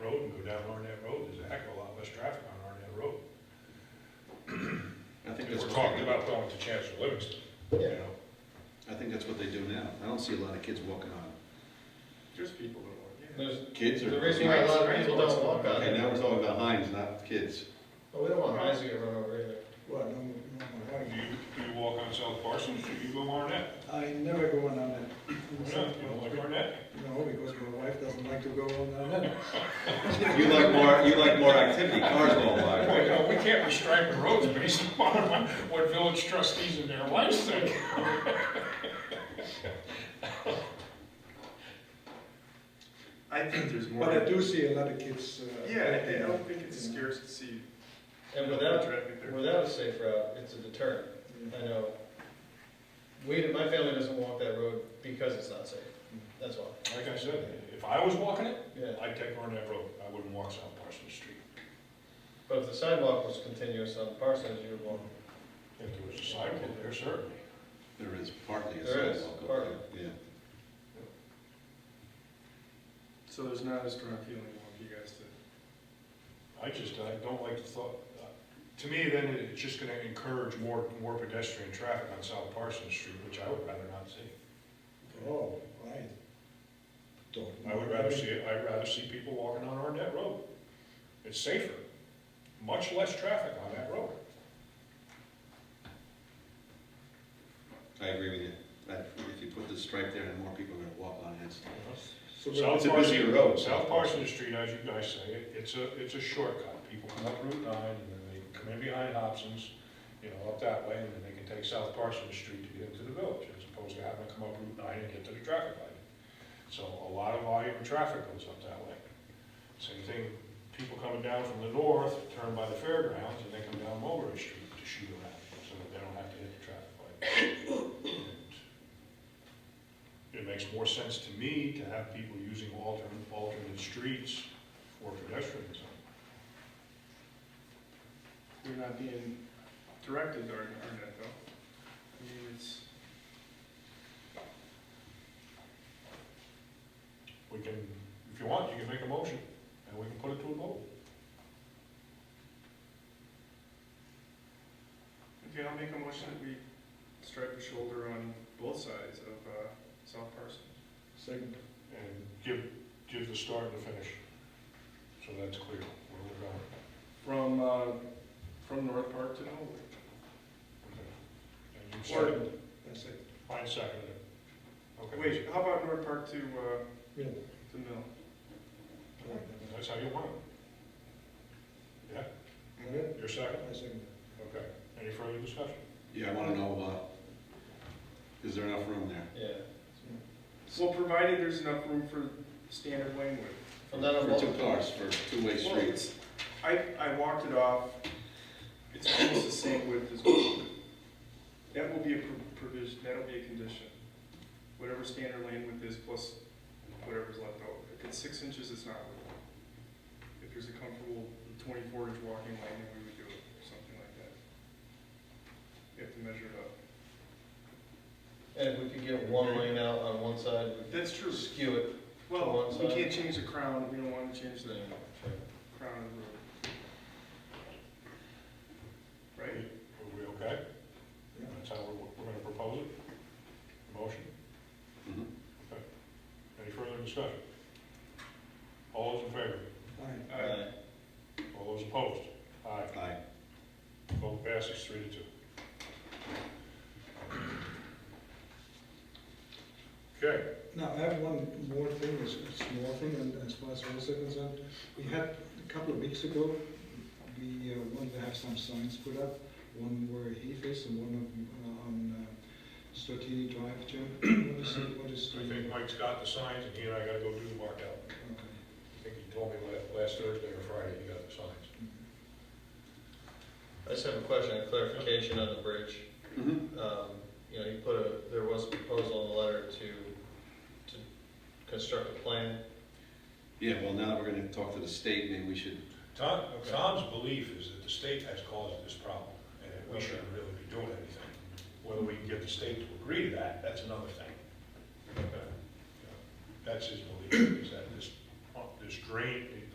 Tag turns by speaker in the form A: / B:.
A: to Chancellor Livingston, you
B: Yeah.
A: know?
C: I think that's what they do now. I don't see a lot of kids walking on.
D: There's people that walk,
B: There's,
C: Kids
B: the
C: are.
B: reason why a lot of
D: Right.
B: people don't walk on
C: Okay,
B: it,
C: now we're talking about Heinz, not kids.
B: but we don't want Heinz to get run over either.
E: What, no, no, no,
A: Do you, do you walk on South Parsons, do you go Arnett?
E: I- I never go on that.
A: You know, you don't like Arnett?
E: No, because my wife doesn't like to go on that.
C: You like more, you like more activity, cars go by.
A: Boy, no, we can't restripe the roads based upon what- what village trustees and their lives think.
D: I think there's more.
E: But I do see a lot of kids. uh,
D: Yeah, I- I don't think it's as scarce to see.
B: And
D: people
B: without,
D: driving there.
B: without a safe route, it's a deterrent. I know, we, my family doesn't walk that road because it's not safe, that's why,
A: Like I said, if I was walking it,
B: yeah.
A: I'd take Arnett Road, I wouldn't walk South Parsons Street.
B: But if the sidewalk was continuous on Parsons, you would walk.
A: If there was a sidewalk there, certainly.
C: There is partly a
B: There is,
C: sidewalk up
B: partly.
C: there, yeah.
D: So there's not a strong feeling among you guys to.
A: I just, I don't like the thought, uh, to me, then it's just gonna encourage more, more pedestrian traffic on South Parsons Street, which I would rather not see.
E: Oh, right. Don't.
A: I would rather see, it. I'd rather see people walking on Arnett Road. It's safer, much less traffic on that road.
C: I agree with you. That if you put the stripe there, then more people are gonna walk on it.
E: So we're-
A: South
C: it's a busier
A: Parsons-
C: road.
A: South Parsons Street, as you guys say, it- it's a, it's a shortcut. People come up Route nine, and then they come in behind Hobson's, you know, up that way, and then they can take South Parsons Street to get into the village, as opposed to having to come up Route nine and get to the traffic light. So a lot of volume of traffic goes up that way. Same thing, people coming down from the north, turn by the fairgrounds, and they come down Mulberry Street to shoot around, so that they don't have to hit the traffic light. And it makes more sense to me to have people using alternate, alternate streets for pedestrianism.
D: You're not being directed or, or that though. I mean, it's,
A: We can, if you want, you can make a motion, and we can put it to a vote.
D: okay, I'll make a motion that we stripe the shoulder on both sides of, uh, South Parsons.
E: Second.
A: And give, give the start and the finish, so that's clear where we're going.
D: From, uh, from North Park to Noble.
A: Okay. And you
D: Or,
A: second,
E: That's it.
A: Ryan seconded it. Okay.
D: wait, how about North Park to, uh,
E: Yeah.
D: to Mill?
A: That's how you want it. Yeah,
E: Alright,
A: you're second,
E: I second
A: okay. Any further discussion?
C: Yeah, I wanna know, uh, is there enough room there?
B: Yeah.
D: Well, provided there's enough room for standard lane width.
B: From that on,
C: For two
B: both-
C: cars, for two-way
D: Well,
C: streets.
D: it's, I, I walked it off, it's almost the same width as well. That will be a pro- provision, that'll be a condition. Whatever standard lane width is plus whatever's left over. If it's six inches, it's not legal. If there's a comfortable twenty-four inch walking lane, then we would do it, or something like that. You have to measure it up.
B: and if we could get one lane out on one side, we
D: That's true.
B: could skew it.
D: Well,
B: One
D: we
B: side.
D: can't change the crown, we don't wanna change
B: to
D: the
B: the-
D: crown of the road. Right?
A: Are we okay?
E: Yeah.
A: That's how we're, we're gonna propose it? Motion?
C: Mhm.
A: Any further discussion? All those in favor?
E: Alright,
B: Alright.
A: All those opposed? Aye.
C: Aye.
A: Vote passes three to two. Okay,
E: now I have one more thing, it's a small thing, and as far as we're concerned, we had, a couple of weeks ago, we uh, wanted to have some signs put up, one where Heath is and one on, on uh, Stratini Drive, Jim, what is, it- what is? the-
A: I think Mike's got the signs, and he and I gotta go do the mark out.
E: Okay.
A: I think he told me la- last Thursday or Friday he got the signs.
B: I just have a question, a clarification on the bridge.
C: Mhm.
B: Um, you know, you put a, there was a proposal in the letter to, to construct a plan.
C: Yeah, well, now that we're gonna talk to the state, maybe we should,
A: Tom,
B: Okay.
A: Tom's belief is that the state has caused this problem, and that we shouldn't really be doing anything. Whether we can get the state to agree to that, that's another thing.
B: Okay.
A: That's his belief, is that this, this drain,